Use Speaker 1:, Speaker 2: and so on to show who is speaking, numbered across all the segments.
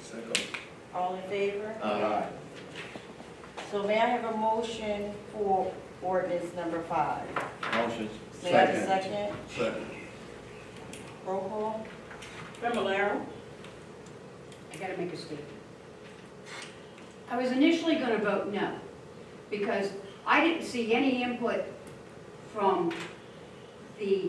Speaker 1: Second.
Speaker 2: All in favor?
Speaker 1: Aye.
Speaker 2: So may I have a motion for ordinance number five?
Speaker 1: Motion.
Speaker 2: May I have a second?
Speaker 1: Second.
Speaker 2: Roll call?
Speaker 3: Fablelaro?
Speaker 4: I gotta make a statement. I was initially gonna vote no, because I didn't see any input from the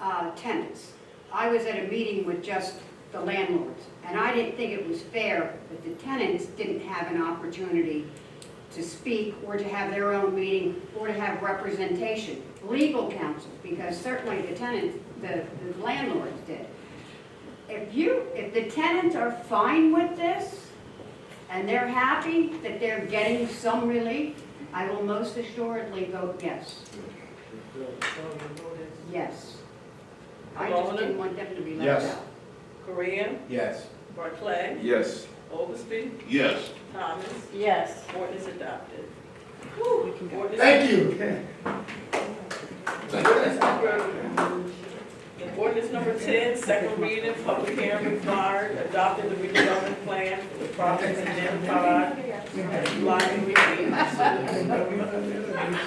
Speaker 4: uh, tenants. I was at a meeting with just the landlords, and I didn't think it was fair that the tenants didn't have an opportunity to speak or to have their own meeting or to have representation, legal counsel, because certainly the tenants, the the landlords did. If you, if the tenants are fine with this, and they're happy that they're getting some relief, I will most assuredly vote yes. Yes. I just didn't want them to be left
Speaker 1: Yes.
Speaker 4: out.
Speaker 3: Korea?
Speaker 1: Yes.
Speaker 3: Barclay?
Speaker 5: Yes.
Speaker 3: Oglesby?
Speaker 5: Yes.
Speaker 3: Thomas?
Speaker 2: Yes.
Speaker 3: Ordinance adopted.
Speaker 1: Thank you.
Speaker 3: Ordinance number 10, second reading, public hearing required, adopting the redevelopment plan for the properties identified. Lot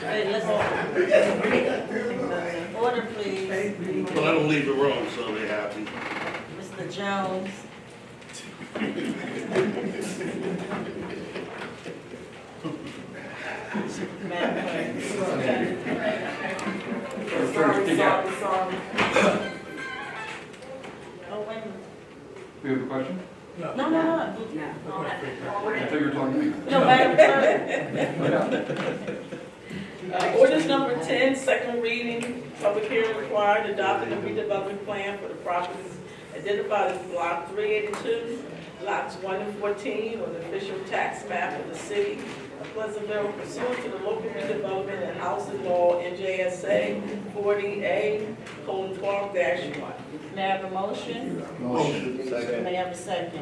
Speaker 2: Wait, listen. Order, please.
Speaker 5: Well, I don't leave the room, so they're happy.
Speaker 2: Mr. Jones. Madam Clerk.
Speaker 3: Sorry, sorry, sorry.
Speaker 2: Oh, wait a minute.
Speaker 6: We have a question?
Speaker 2: No, no, no.
Speaker 4: No.
Speaker 6: I thought you were talking to me.
Speaker 2: No, Madam Clerk.
Speaker 3: Uh, Ordinance number 10, second reading, public hearing required, adopting the redevelopment plan for the properties identified as Block 382, Lots 1 and 14 on the official tax map of the city of Pleasantville pursuant to the local redevelopment and housing law NJSA 40A, colon 12-1.
Speaker 2: May I have a motion?
Speaker 1: Motion. Second.
Speaker 2: May I have a second?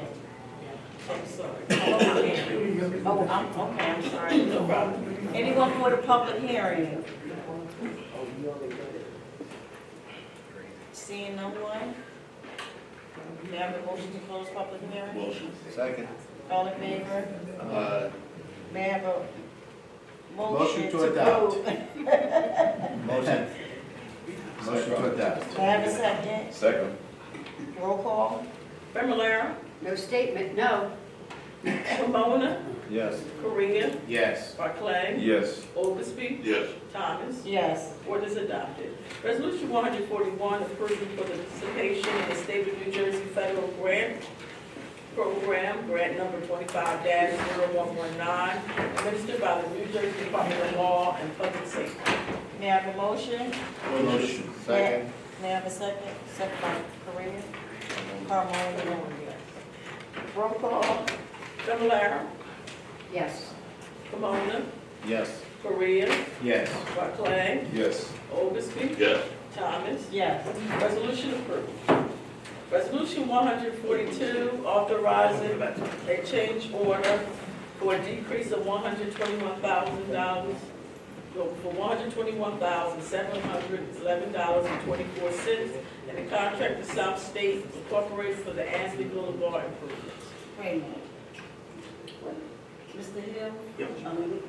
Speaker 3: I'm sorry.
Speaker 2: Oh, I'm, okay, I'm sorry, no problem. Anyone for the public hearing? Seeing no one? May I have a motion to close public hearing?
Speaker 5: Motion.
Speaker 1: Second.
Speaker 2: All in favor?
Speaker 5: Uh,
Speaker 2: May I have a motion
Speaker 1: Motion
Speaker 2: to
Speaker 1: to
Speaker 2: close?
Speaker 1: adopt.
Speaker 2: May
Speaker 1: Motion. Motion to adopt.
Speaker 2: I have a second?
Speaker 5: Second.
Speaker 2: Roll call?
Speaker 3: Familar,
Speaker 4: No statement, no.
Speaker 3: Pomona,
Speaker 1: Yes.
Speaker 3: Korea,
Speaker 1: Yes.
Speaker 3: Barclay,
Speaker 5: Yes.
Speaker 3: Oglesby,
Speaker 5: Yes.
Speaker 3: Thomas.
Speaker 2: Yes.
Speaker 3: Ordinance adopted. Resolution one hundred forty-one, approving for the participation in the state of New Jersey federal grant program, grant number twenty-five 119 administered by the New Jersey Department of Law and Public Safety.
Speaker 2: May I have a motion?
Speaker 5: Motion.
Speaker 1: Second.
Speaker 2: May I have a second? Second by Korea? Carmona. Roll call?
Speaker 3: Familar,
Speaker 4: Yes.
Speaker 3: Pomona,
Speaker 1: Yes.
Speaker 3: Korea,
Speaker 1: Yes.
Speaker 3: Barclay,
Speaker 5: Yes.
Speaker 3: Oglesby,
Speaker 5: Yes.
Speaker 3: Thomas.
Speaker 2: Yes.
Speaker 3: Resolution approved. Resolution one hundred forty-two, authorizing a change order for a decrease of one hundred twenty-one thousand dollars, for one hundred twenty-one thousand, seven hundred eleven dollars and twenty-four cents, and the contract to South State Incorporated for the Ansley Boulevard improvements.
Speaker 2: Wait a minute. Mr. Hill? Um,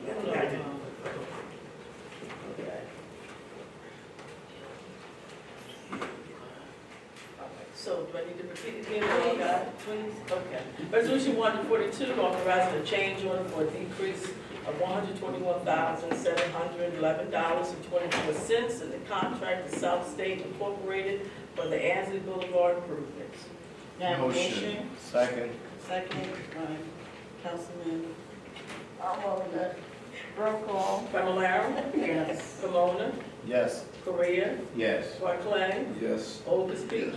Speaker 3: So do I need to repeat it again? or I got it?
Speaker 2: Please, please.
Speaker 3: Okay. Resolution one forty-two, authorizing a change order for a decrease of one hundred twenty-one thousand, seven hundred eleven dollars and twenty-four cents in the contract to South State Incorporated for the Ansley Boulevard improvements.
Speaker 2: May I have a motion?
Speaker 1: Second.
Speaker 2: Second by Councilman Armona. Roll call?
Speaker 3: Familar,
Speaker 2: Yes.
Speaker 3: Pomona,
Speaker 1: Yes.
Speaker 3: Korea,
Speaker 1: Yes.
Speaker 3: Barclay,
Speaker 5: Yes.
Speaker 3: Oldesty,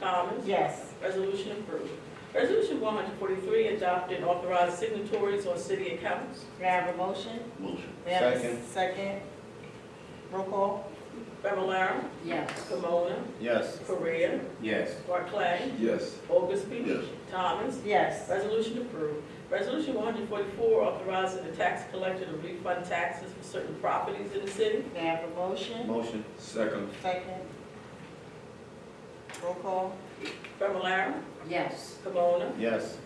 Speaker 3: Thomas.
Speaker 2: Yes.
Speaker 3: Resolution approved. Resolution one hundred forty-three, adopted authorized signatories on city accounts.
Speaker 2: May I have a motion?
Speaker 5: Motion.
Speaker 2: May I have a
Speaker 1: Second.
Speaker 2: Second. Roll call?
Speaker 3: Familar,
Speaker 4: Yes.
Speaker 3: Pomona,
Speaker 1: Yes.
Speaker 3: Korea,
Speaker 1: Yes.
Speaker 3: Barclay,
Speaker 5: Yes.
Speaker 3: Oldesty.
Speaker 5: Yes.
Speaker 3: Thomas.
Speaker 2: Yes.
Speaker 3: Resolution approved. Resolution one hundred forty-four, authorizing the tax collector to refund taxes for certain properties in the city.
Speaker 2: May I have a motion?
Speaker 1: Motion.
Speaker 5: Second.
Speaker 2: Second. Roll call?
Speaker 3: Fablelaro,
Speaker 4: Yes.
Speaker 3: Camona,
Speaker 1: Yes.